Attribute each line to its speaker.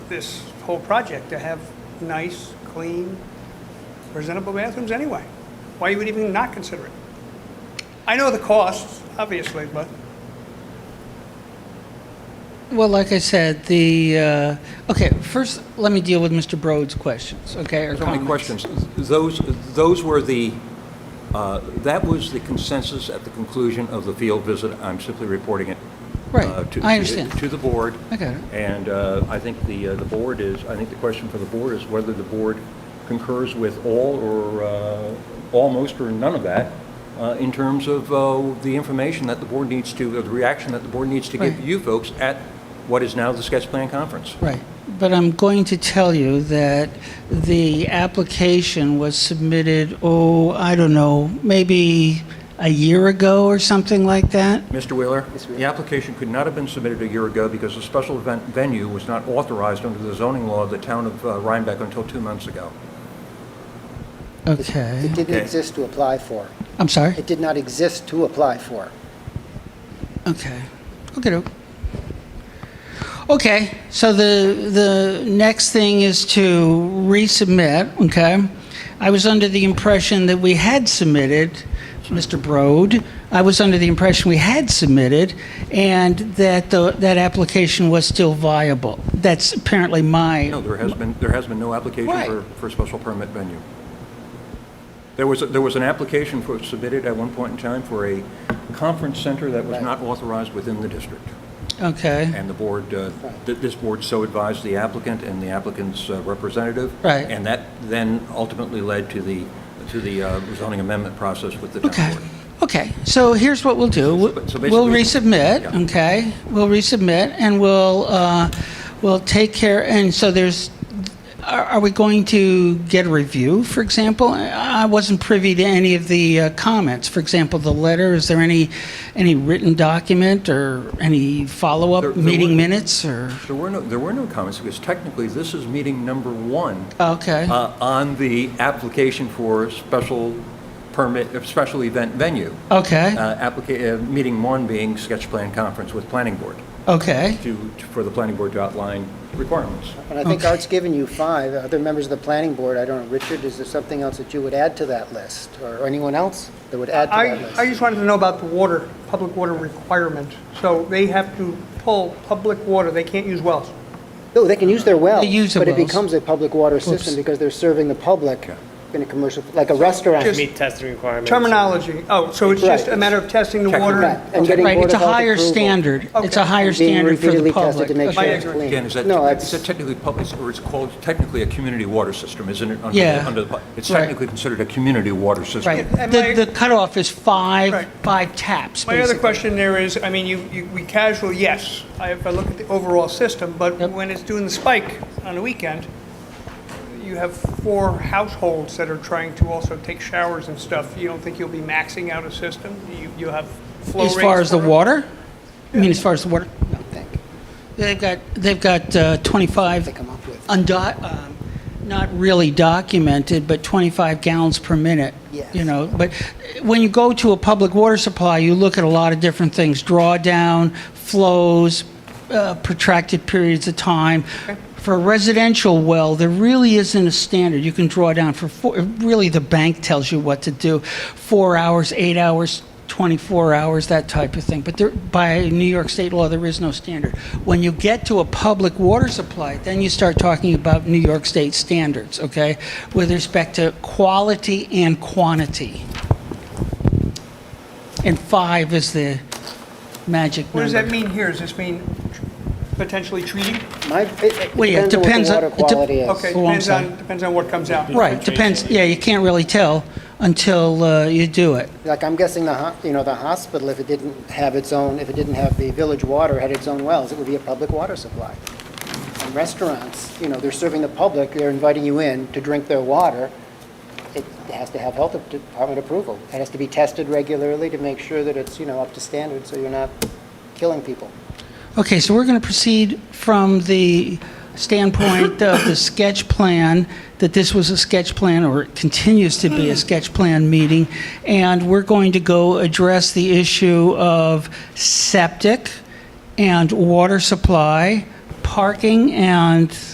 Speaker 1: this whole project to have nice, clean, presentable bathrooms anyway. Why you would even not consider it? I know the costs, obviously, but
Speaker 2: Well, like I said, the, uh, okay, first, let me deal with Mr. Broad's questions, okay, or
Speaker 3: There's only
Speaker 2: comments.
Speaker 3: questions. Those, those were the, uh, that was the consensus at the conclusion of the field visit. I'm simply reporting it.
Speaker 2: Right.
Speaker 3: uh, to-
Speaker 2: I understand.
Speaker 3: To the board.
Speaker 2: I got it.
Speaker 3: And uh, I think the, uh, the board is, I think the question for the board is whether the board concurs with all or uh, almost or none of that uh, in terms of uh, the information that the board needs to, the reaction that the board needs to give
Speaker 2: Right.
Speaker 3: you folks at what is now the sketch plan conference.
Speaker 2: Right, but I'm going to tell you that the application was submitted, oh, I don't know, maybe a year ago or something like that?
Speaker 3: Mr. Wheeler, the application could not have been submitted a year ago because the special event venue was not authorized under the zoning law of the town of uh, Rhinebeck until two months ago.
Speaker 2: Okay, Eh?
Speaker 4: It didn't
Speaker 3: Okay.
Speaker 4: exist to apply for.
Speaker 2: I'm sorry?
Speaker 4: It did not exist to apply for.
Speaker 2: Okay. Okay. Okay, so the, the next thing is to resubmit, okay? I was under the impression that we had submitted, Mr. Broad. I was under the impression we had submitted and that the, that application was still viable. That's apparently my.
Speaker 3: No, there has been, there has been no application
Speaker 2: Right.
Speaker 3: for, for a special permit venue. There was, a- there was an application for, submitted at one point in time for a conference center that was
Speaker 4: Right.
Speaker 3: not authorized within the district.
Speaker 2: Okay.
Speaker 3: And the board, uh, th- this board so advised the applicant and the applicant's uh, representative.
Speaker 2: Right.
Speaker 3: And that then ultimately led to the, to the uh, zoning amendment process with the town
Speaker 2: Okay,
Speaker 3: board.
Speaker 2: okay, so here's what we'll do.
Speaker 3: So basically-
Speaker 2: We'll resubmit,
Speaker 3: Yeah.
Speaker 2: okay? We'll resubmit, and we'll, uh, we'll take care, and so there's, are are we going to get a review, for example? I I wasn't privy to any of the uh, comments, for example, the letter, is there any, any written document or any
Speaker 3: There-
Speaker 2: follow-up
Speaker 3: there
Speaker 2: meeting
Speaker 3: would-
Speaker 2: minutes, or,
Speaker 3: There were no, there were no comments, because technically, this is meeting number one
Speaker 2: okay?
Speaker 3: uh, on the application for special permit, uh, special event venue. Uh,
Speaker 2: Okay,
Speaker 3: applica- uh, Meeting one being sketch plan conference with planning board,
Speaker 2: okay,
Speaker 3: to, for the planning board to outline requirements.
Speaker 4: And I think
Speaker 2: Okay.
Speaker 4: Art's given you five, other members of the planning board, I don't know, Richard, is there something else that you would add to that list? Or anyone else that would add to
Speaker 1: I,
Speaker 4: that
Speaker 1: I
Speaker 4: list?
Speaker 1: just wanted to know about the water, public water requirement. So they have to pull public water, they can't use wells.
Speaker 4: No, Oh, they can use their wells.
Speaker 2: They use their
Speaker 4: But it
Speaker 2: wells.
Speaker 4: becomes a public water system because they're serving the public in a commercial, like a restaurant.
Speaker 1: Just-
Speaker 5: meet testing requirements.
Speaker 1: Terminology, oh, so it's just a
Speaker 4: Right.
Speaker 1: matter of testing the water?
Speaker 4: Right, and getting
Speaker 2: right,
Speaker 4: Board
Speaker 2: it's a
Speaker 4: of Health
Speaker 2: higher
Speaker 4: approval.
Speaker 2: standard, it's a
Speaker 1: Okay.
Speaker 2: higher
Speaker 4: And being
Speaker 2: standard for
Speaker 4: repeatedly
Speaker 2: the
Speaker 4: tested
Speaker 2: public.
Speaker 4: to make
Speaker 2: Okay.
Speaker 4: sure it's
Speaker 1: ignorance.
Speaker 4: clean.
Speaker 3: Again, is that,
Speaker 4: No,
Speaker 3: is that
Speaker 4: that's-
Speaker 3: technically public, or it's called technically a community water system, isn't it? under the-
Speaker 2: Yeah.
Speaker 3: under the- It's
Speaker 2: Right.
Speaker 3: technically considered a community water system.
Speaker 2: Right,
Speaker 1: And
Speaker 2: the,
Speaker 1: my-
Speaker 2: the cutoff is
Speaker 1: Right.
Speaker 2: five, five taps,
Speaker 1: My other
Speaker 2: basically.
Speaker 1: question there is, I mean, you, you, we casual, yes, I- if I look at the overall system, but when it's doing the spike on the weekend, you have four households that are trying to also take showers and stuff. You don't think you'll be maxing out a system? You, you have flow rates?
Speaker 2: As far as the
Speaker 1: for-
Speaker 2: water? I mean, as far as the water?
Speaker 4: I don't think
Speaker 2: They've got, they've got uh, 25,
Speaker 4: They come up with.
Speaker 2: undo- um, not really documented, but 25 gallons per minute.
Speaker 4: Yes.
Speaker 2: You know, but when you go to a public water supply, you look at a lot of different things, drawdown, flows, uh, protracted periods of time. For a residential well, there really isn't a standard. You can draw down for, four really, the bank tells you what to do, four hours, eight hours, 24 hours, that type of thing. But there, by New York state law, there is no standard. When you get to a public water supply, then you start talking about New York state standards, okay? With respect to quality and quantity. And five is the magic number.
Speaker 1: What does that mean here? Does this mean potentially treating?
Speaker 4: My, it-
Speaker 2: Well, yeah,
Speaker 4: it
Speaker 2: it
Speaker 4: depends
Speaker 2: depends
Speaker 4: on what the
Speaker 2: on- it
Speaker 4: water
Speaker 2: de-
Speaker 4: quality is.
Speaker 1: Okay,
Speaker 2: Oh, I'm
Speaker 1: depends
Speaker 2: sorry.
Speaker 1: on, depends on what comes out.
Speaker 2: Right, depends, yeah, you can't really tell until uh, you do it.
Speaker 4: Like, I'm guessing the, ho- you know, the hospital, if it didn't have its own, if it didn't have the village water, had its own wells, it would be a public water supply. And restaurants, you know, they're serving the public, they're inviting you in to drink their water. It has to have health department approval. It has to be tested regularly to make sure that it's, you know, up to standard, so you're not killing people.
Speaker 2: Okay, so we're going to proceed from the standpoint of the sketch plan, that this was a sketch plan, or it continues to be a sketch plan meeting, and we're going to go address the issue of septic and water supply, parking and